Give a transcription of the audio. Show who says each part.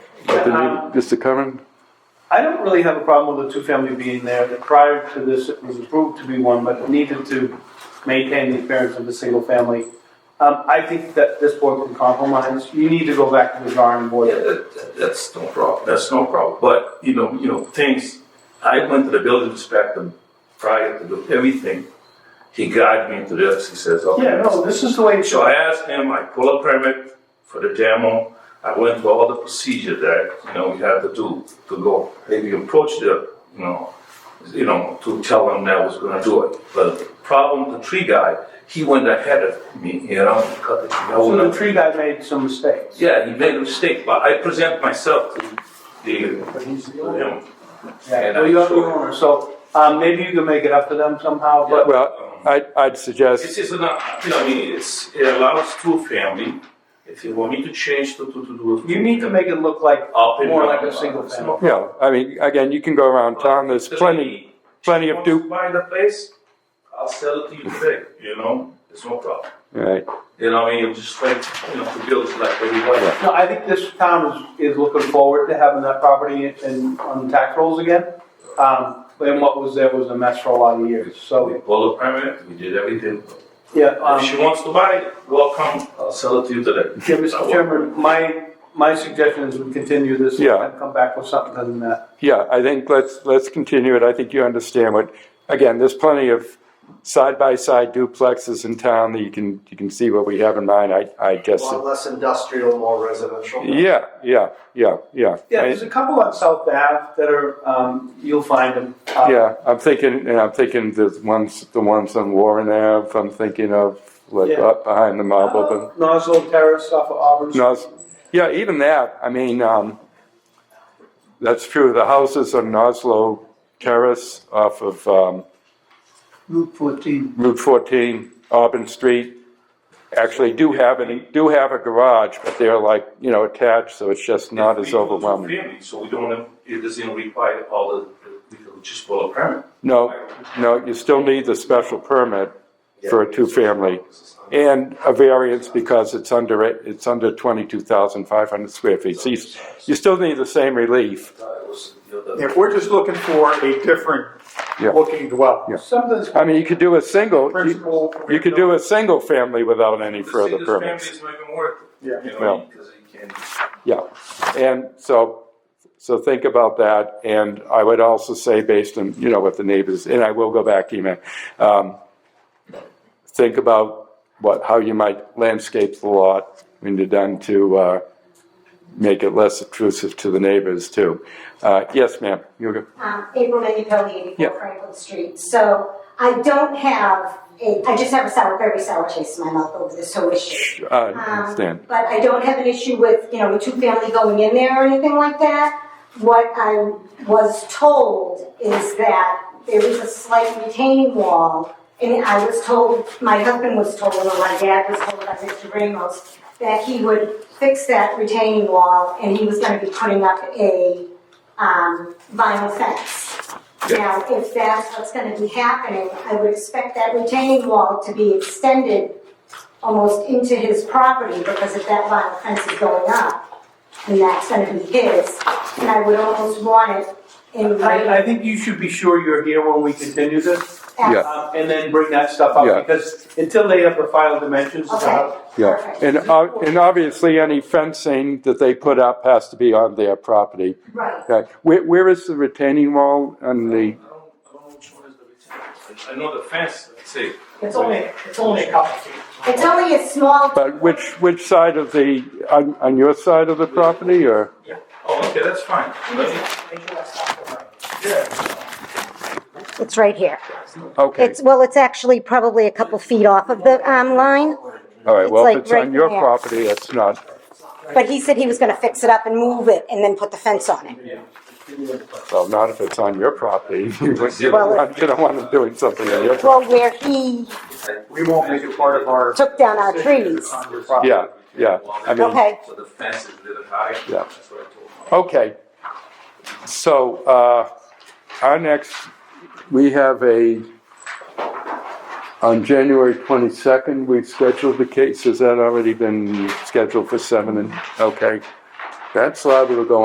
Speaker 1: something
Speaker 2: um,
Speaker 1: you, Mr. Curran?
Speaker 2: I don't really have a problem with a two-family being there. Prior to this, it was approved to be one, but it needed to maintain the appearance of a single family. Um, I think that this board can compromise. You need to go back to the drawing
Speaker 3: Yeah,
Speaker 2: board.
Speaker 3: that, that- that's no problem, that's no problem, but, you know, you know, things, I went to the building inspector prior to do everything. He guided me to this, he says, okay.
Speaker 2: Yeah, no, this is the way it
Speaker 3: So
Speaker 2: should.
Speaker 3: I asked him, I pull a permit for the demo, I went through all the procedure that, you know, we had to do to go, maybe approach the, you know, you know, to tell him that I was gonna do it. But the problem, the tree guy, he went ahead of me, you know, cut the tree. I
Speaker 2: So
Speaker 3: wouldn't-
Speaker 2: the tree guy made some mistakes.
Speaker 3: yeah, he made a mistake, but I present myself to the,
Speaker 2: But he's the
Speaker 3: to
Speaker 2: owner.
Speaker 3: him.
Speaker 2: Yeah,
Speaker 3: And
Speaker 2: well,
Speaker 3: I'm
Speaker 2: you're the
Speaker 3: sure-
Speaker 2: owner, so, um, maybe you can make it up to them somehow, but
Speaker 1: Well, I, I'd suggest,
Speaker 3: This is not, you know, I mean, it's, it allows two family, if you want me to change to, to, to do it.
Speaker 2: you need to make it look like
Speaker 3: Up and
Speaker 2: more
Speaker 3: down,
Speaker 2: like a
Speaker 3: uh,
Speaker 2: single
Speaker 3: it's
Speaker 2: family.
Speaker 3: not-
Speaker 1: you know, I mean, again, you can go around town, there's plenty, plenty of
Speaker 3: If
Speaker 1: du,
Speaker 3: you Buy the place, I'll sell it to you today, you know, it's no problem.
Speaker 1: right,
Speaker 3: You know, I mean, it's just like, you know, the bills like everybody.
Speaker 1: Yeah.
Speaker 2: No, I think this town is, is looking forward to having that property in, on the tax rolls again. Um, and what was there was a mess for a lot of years,
Speaker 3: We
Speaker 2: so,
Speaker 3: pulled a permit, we did everything.
Speaker 2: yeah, um,
Speaker 3: If she wants to buy it, welcome, I'll sell it to you today.
Speaker 2: yeah, Mr. Chairman, my, my suggestion is we continue this
Speaker 1: Yeah.
Speaker 2: and come back with something uh, other than that.
Speaker 1: yeah, I think let's, let's continue it, I think you understand what, again, there's plenty of side-by-side duplexes in town that you can, you can see what we have in mind, I, I guess.
Speaker 4: Well, less industrial, more residential.
Speaker 1: Yeah, yeah, yeah, yeah.
Speaker 2: Yeah,
Speaker 1: I-
Speaker 2: there's a couple on South Ave that are, um, you'll find them. Uh,
Speaker 1: Yeah, I'm thinking, and I'm thinking there's ones, the ones on Warren Ave, I'm thinking of, like,
Speaker 2: Yeah.
Speaker 1: up behind the marble, but.
Speaker 2: Nozzle Terrace off of Auburn.
Speaker 1: No, it's- yeah, even that, I mean, um, that's true, the houses on Oslo Terrace off of, um,
Speaker 5: Route 14.
Speaker 1: Route fourteen, Auburn Street, actually do have an, do have a garage, but they're like, you know, attached, so it's just not
Speaker 3: If we
Speaker 1: as
Speaker 3: do two
Speaker 1: overwhelming.
Speaker 3: family, So we don't, have- it doesn't require all the, we could just pull a permit.
Speaker 1: No, no, you still need the special permit for a two-family, and a variance because it's under, it- it's under twenty-two thousand five hundred square feet, so you, you still need the same relief,
Speaker 3: That was the other-
Speaker 6: If we're just looking for a different
Speaker 1: Yeah.
Speaker 6: looking dwelling. Uh,
Speaker 2: Something's
Speaker 1: I mean, you could do a single. you-
Speaker 6: Principal.
Speaker 1: You could do a single family without any
Speaker 3: The
Speaker 1: further
Speaker 3: single
Speaker 1: permits.
Speaker 3: Families not even worth it.
Speaker 6: Yeah.
Speaker 3: You
Speaker 1: Well.
Speaker 3: know, because you can,
Speaker 1: Yeah, and so, so think about that, and I would also say, based on, you know, what the neighbors, and I will go back to you, man. Um, Think about what, how you might landscape the lot when you're done to, uh, make it less obtrusive to the neighbors too. Uh, yes, ma'am, you go.
Speaker 7: um, April Minipelli, 84
Speaker 1: Yeah.
Speaker 7: Franklin Street. So I don't have, a, I just have a sour, very sour taste in my mouth over this whole issue.
Speaker 1: Uh,
Speaker 7: Um,
Speaker 1: understand,
Speaker 7: But I don't have an issue with, you know, a two-family going in there or anything like that. What I was told is that there was a slight retaining wall, and I was told, my husband was told, or my dad was told by Mr. Ramos, that he would fix that retaining wall, and he was gonna be putting up a, um, vinyl fence. Now, if that's what's gonna be happening, I would expect that retaining wall to be extended almost into his property, because if that vinyl fence is going up, then that's gonna be his, and I would almost want it in
Speaker 2: I,
Speaker 7: writing.
Speaker 2: I think you should be sure you're here when we continue this.
Speaker 1: Yeah.
Speaker 2: um, And then bring that stuff
Speaker 1: Yeah.
Speaker 2: up, because until they have the final dimensions of the
Speaker 7: Okay.
Speaker 2: house,
Speaker 1: yeah.
Speaker 7: Perfect.
Speaker 1: And, uh, and obviously, any fencing that they put up has to be on their property.
Speaker 7: Right,
Speaker 1: Okay, where, where is the retaining wall on
Speaker 3: I
Speaker 1: the,
Speaker 3: don't, I don't know which one is the retention. I- I know the fence, let's see.
Speaker 5: It's only, it's only a couple feet.
Speaker 7: it's only a small.
Speaker 1: but uh, which, which side of the, on, on your side of the property, or?
Speaker 3: Oh, okay, that's fine. Let me-
Speaker 5: Make sure that's not the right.
Speaker 3: Yeah,
Speaker 7: It's right here.
Speaker 1: Okay,
Speaker 7: It's, well, it's actually probably a couple feet off of the, um, line,
Speaker 1: all right, well,
Speaker 7: it's
Speaker 1: if
Speaker 7: like
Speaker 1: it's on
Speaker 7: right
Speaker 1: your
Speaker 7: there.
Speaker 1: property, it's not,
Speaker 7: but he said he was gonna fix it up and move it and then put the fence on it.
Speaker 1: well, not if it's on your property. You wouldn't- you
Speaker 7: Well,
Speaker 1: don't want- you don't want them doing something on your,
Speaker 7: Well, where he
Speaker 6: We won't make it part of our.
Speaker 7: took down our trees.
Speaker 6: on your property.
Speaker 1: yeah, yeah, I mean,
Speaker 7: Okay,
Speaker 3: so the fence is a little high.
Speaker 1: Yeah.
Speaker 3: That's what I told him.
Speaker 1: okay. So, uh, our next, we have a, on January twenty-second, we've scheduled the case, has that already been scheduled for seven and, okay? That's liable to go